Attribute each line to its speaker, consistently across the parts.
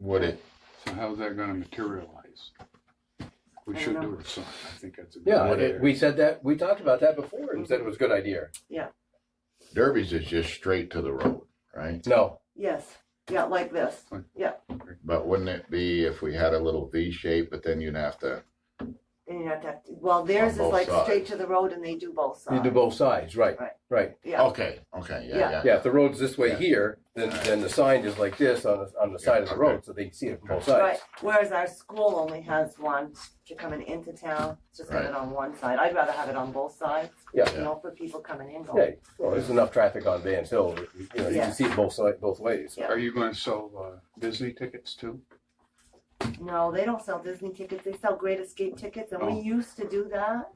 Speaker 1: would it?
Speaker 2: So how's that gonna materialize? We
Speaker 3: I
Speaker 2: should
Speaker 3: don't
Speaker 2: do a sign, I think that's a good
Speaker 4: Yeah,
Speaker 1: What
Speaker 2: idea.
Speaker 4: it- we said that, we talked about that before and said it was a good idea.
Speaker 1: Derbies is just straight to the road, right?
Speaker 4: No,
Speaker 3: Yes, yeah, like this.
Speaker 1: But wouldn't it be if we had a little V shape, but then you'd have to,
Speaker 3: And you have to, have to- well, theirs is
Speaker 1: both
Speaker 3: like
Speaker 1: sides.
Speaker 3: straight to the road and they do both
Speaker 4: you do
Speaker 3: sides.
Speaker 4: both sides, right,
Speaker 3: Right.
Speaker 4: right.
Speaker 3: Yeah,
Speaker 1: okay, okay,
Speaker 3: Yeah.
Speaker 1: yeah, yeah.
Speaker 4: Yeah, if the road's this way
Speaker 1: Yeah.
Speaker 4: here, then, then the sign is like this on, the- on the side of the
Speaker 1: okay.
Speaker 4: road, so they can see it from both
Speaker 3: right.
Speaker 4: sides.
Speaker 3: Whereas our school only has one, you're coming into town, it's just have it
Speaker 1: Right.
Speaker 3: on one side. I'd rather have it on both sides.
Speaker 4: Yeah.
Speaker 3: You know, for people coming in, going,
Speaker 4: Yeah, well, there's enough traffic on Van Hill, you know, you
Speaker 3: Yeah.
Speaker 4: can see it both side, both ways.
Speaker 3: Yeah.
Speaker 2: Are you gonna sell, uh, Disney tickets too?
Speaker 3: no, they don't sell Disney tickets, they sell Great Escape tickets, and
Speaker 2: Oh.
Speaker 3: we used to do that.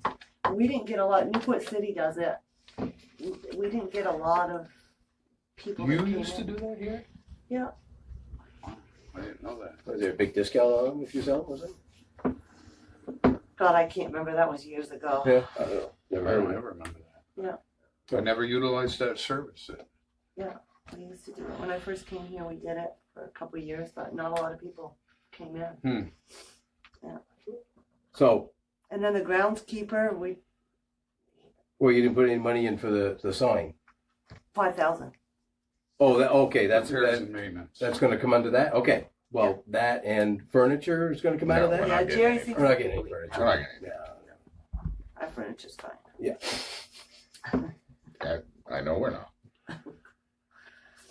Speaker 3: We didn't get a lot, Newport City does it. We- We didn't get a lot of people that
Speaker 2: You
Speaker 3: came
Speaker 2: used to
Speaker 3: in.
Speaker 2: do that here?
Speaker 3: Yeah.
Speaker 2: I didn't know that.
Speaker 4: Was there a big discount on them if you sell, was it?
Speaker 3: God, I can't remember, that was years ago.
Speaker 4: Yeah. I don't know.
Speaker 2: I
Speaker 4: Never heard
Speaker 2: don't
Speaker 4: of it.
Speaker 2: ever remember that.
Speaker 3: Yeah.
Speaker 2: I never utilized that service.
Speaker 3: We used to do it. When I first came here, we did it for a couple of years, but not a lot of people came in.
Speaker 4: So,
Speaker 3: And then the groundskeeper, we,
Speaker 4: well, you didn't put any money in for the, the sign?
Speaker 3: five thousand.
Speaker 4: Oh, that, okay, that's,
Speaker 2: Repairs
Speaker 4: that,
Speaker 2: and maintenance.
Speaker 4: That's gonna come under that, okay, well, that and furniture is gonna come out of
Speaker 1: No, we're
Speaker 4: that?
Speaker 1: not
Speaker 3: Yeah,
Speaker 1: getting
Speaker 3: Jerry
Speaker 1: any-
Speaker 3: seems-
Speaker 4: We're not getting any furniture.
Speaker 1: We're not getting
Speaker 4: Yeah.
Speaker 3: Our furniture's fine.
Speaker 1: I know we're not.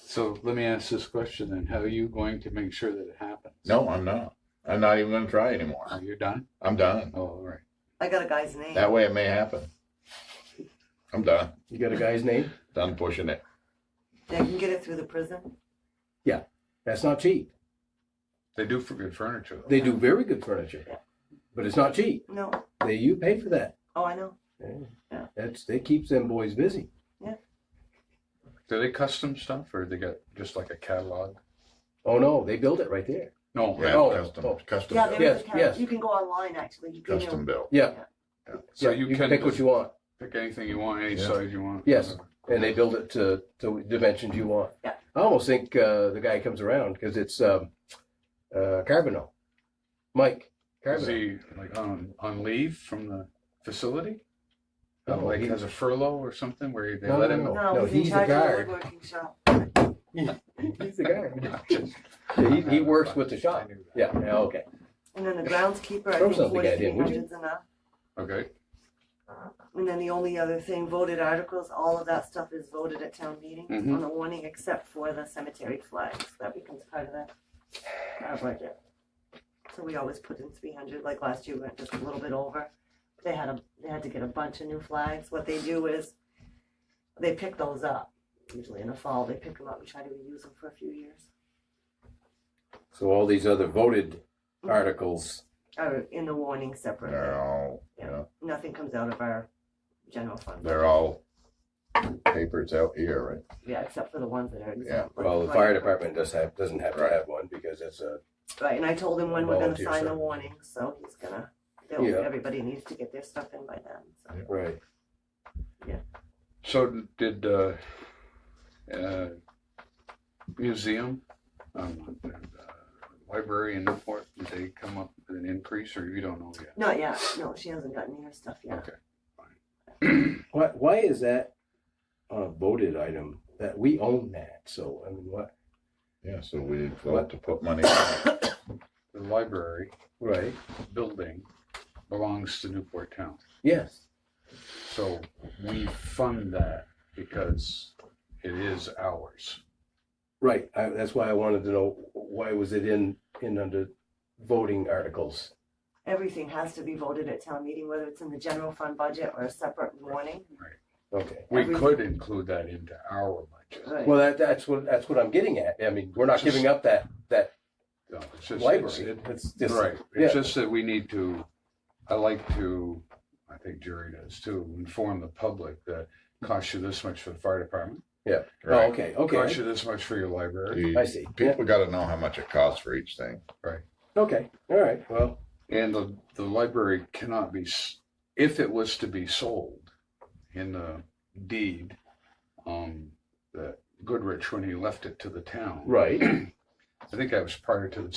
Speaker 2: So let me ask this question then, how are you going to make sure that it happens?
Speaker 1: No, I'm not. I'm not even gonna try anymore.
Speaker 2: Are you done?
Speaker 1: I'm done.
Speaker 2: Oh, all right.
Speaker 3: I got a guy's name.
Speaker 1: That way it may happen. I'm done.
Speaker 4: You got a guy's name?
Speaker 1: Done pushing it.
Speaker 3: They can get it through the prison.
Speaker 4: That's not cheap.
Speaker 2: They do for good furniture. though.
Speaker 4: They do very good furniture, but it's not cheap.
Speaker 3: No.
Speaker 4: They, you pay for that.
Speaker 3: Oh, I know. Yeah.
Speaker 4: That's, that keeps them boys busy.
Speaker 2: Do they custom stuff or they got just like a catalog?
Speaker 4: Oh, no, they build it right there.
Speaker 2: No.
Speaker 1: Yeah,
Speaker 4: Oh, oh.
Speaker 1: custom, custom
Speaker 3: Yeah, there
Speaker 1: built,
Speaker 3: is
Speaker 4: Yes,
Speaker 3: a town.
Speaker 4: yes.
Speaker 3: You can go online, actually. You can,
Speaker 1: custom built.
Speaker 4: Yeah,
Speaker 2: So
Speaker 4: yeah,
Speaker 2: you can
Speaker 4: pick what
Speaker 2: just
Speaker 4: you want,
Speaker 2: pick anything you want, any
Speaker 1: Yeah.
Speaker 2: size you want.
Speaker 4: Yes. and they build it to, to dimensions you want.
Speaker 3: Yeah.
Speaker 4: I almost think, uh, the guy comes around, because it's, um, uh, Carbonell. Mike
Speaker 2: Is
Speaker 4: Carbonell.
Speaker 2: he like on, on leave from the facility? Uh,
Speaker 4: No,
Speaker 2: Like
Speaker 4: he-
Speaker 2: has a furlough or something where they
Speaker 4: No,
Speaker 2: let
Speaker 4: no,
Speaker 2: him?
Speaker 4: no.
Speaker 3: no, he's
Speaker 4: he's
Speaker 3: in
Speaker 4: a
Speaker 3: charge of the
Speaker 4: guard.
Speaker 3: woodworking shop.
Speaker 4: He's the guy.
Speaker 2: Just-
Speaker 4: Yeah, he- he works with the shop.
Speaker 2: I knew that.
Speaker 4: Yeah, yeah, okay.
Speaker 3: And then the groundskeeper, I
Speaker 4: Throw
Speaker 3: think
Speaker 4: something at him,
Speaker 3: forty-three
Speaker 4: would you?
Speaker 3: hundred's enough.
Speaker 2: Okay,
Speaker 3: And then the only other thing, voted articles, all of that stuff is voted at town meeting
Speaker 4: Mm-hmm.
Speaker 2: Mhm.
Speaker 3: on the warning, except for the cemetery flags. That becomes part of that. Our budget. So we always put in three hundred, like last year, we went just a little bit over. They had a, they had to get a bunch of new flags. What they do is they pick those up, usually in the fall. They pick them up and try to reuse them for a few years.
Speaker 4: So all these other voted
Speaker 3: Mhm.
Speaker 4: articles,
Speaker 3: Or in the warning separate.
Speaker 1: They're all, yeah,
Speaker 3: Nothing comes out of our general fund.
Speaker 1: they're all papers out here, right?
Speaker 3: Yeah, except for the ones that are.
Speaker 1: Yeah,
Speaker 4: well, the fire department does have, doesn't have to have one because it's a,
Speaker 3: Right, and I told him when we're gonna
Speaker 4: Volunteer
Speaker 3: sign the
Speaker 4: service.
Speaker 3: warning, so he's gonna, they'll-
Speaker 4: Yeah.
Speaker 3: everybody needs to get their stuff in by then, so.
Speaker 4: right.
Speaker 2: so did, uh, uh, museum, um, uh, library in Newport, did they come up with an increase or you don't know yet?
Speaker 3: Not yet, no, she hasn't gotten her stuff yet.
Speaker 2: Okay.
Speaker 4: Why, why is that on a voted item that we own that? So, I mean, what,
Speaker 1: yeah, so we vote to put money, in.
Speaker 2: The library
Speaker 4: right?
Speaker 2: building belongs to Newport Town.
Speaker 4: Yes.
Speaker 2: So we fund that because it is ours.
Speaker 4: Right, I, that's why I wanted to know, why was it in, in under voting articles?
Speaker 3: Everything has to be voted at town meeting, whether it's in the general fund budget or a separate warning.
Speaker 4: Okay.
Speaker 2: We
Speaker 3: Everything.
Speaker 2: could include that into our budget.
Speaker 3: Right.
Speaker 4: Well, that, that's what, that's what I'm getting at. I mean, we're not giving up that, that
Speaker 2: No, it's just- it's-
Speaker 4: library.
Speaker 2: it-
Speaker 4: It's just,
Speaker 2: Right,
Speaker 4: yeah.
Speaker 2: it's just that we need to, I like to, I think Jerry does too, inform the public that costs you this much for the fire department,
Speaker 4: oh,
Speaker 1: right?
Speaker 4: okay,
Speaker 2: costs
Speaker 4: okay,
Speaker 2: you this much for your library,
Speaker 1: You-
Speaker 4: Oh, I see. Yeah,
Speaker 1: People gotta know how much it costs for each thing.
Speaker 4: okay, all right, well,
Speaker 2: and the, the library cannot be, s- if it was to be sold in the deed, um, that Goodrich, when he left it to the town,
Speaker 4: right.
Speaker 2: I think that was prior to the